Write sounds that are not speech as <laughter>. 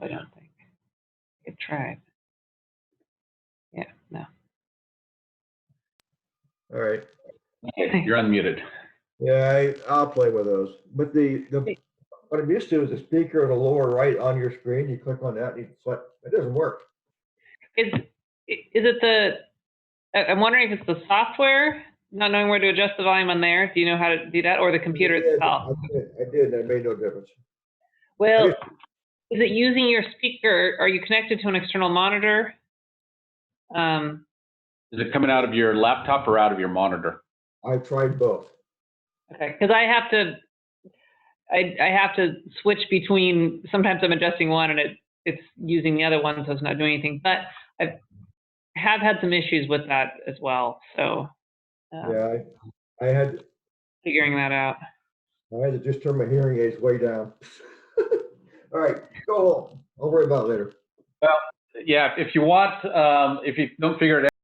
tribe. Yeah, no. All right. <laughs> Okay. You're unmuted. Yeah, I, I'll play with those. But the, the, what I'm used to is the speaker in the lower right on your screen. You click on that and you select, it doesn't work. Is, is it the, I- I'm wondering if it's the software, not knowing where to adjust the volume on there? Do you know how to do that, or the computer I did, itself? I did, I did, and it made no difference. Well, is it using your speaker? Are you connected to an external monitor? Um, Is it coming out of your laptop or out of your monitor? I tried both. Okay, because I have to, I, I have to switch between, sometimes I'm adjusting one and it, it's using the other one, so it's not doing anything, but I have had some issues with that as well, so. uh, Yeah, I, I had, Figuring that out. I had to just turn my hearing aids way down. <laughs> All right, go home. I'll worry about it later. Yeah, if you want, um, if you don't figure it out.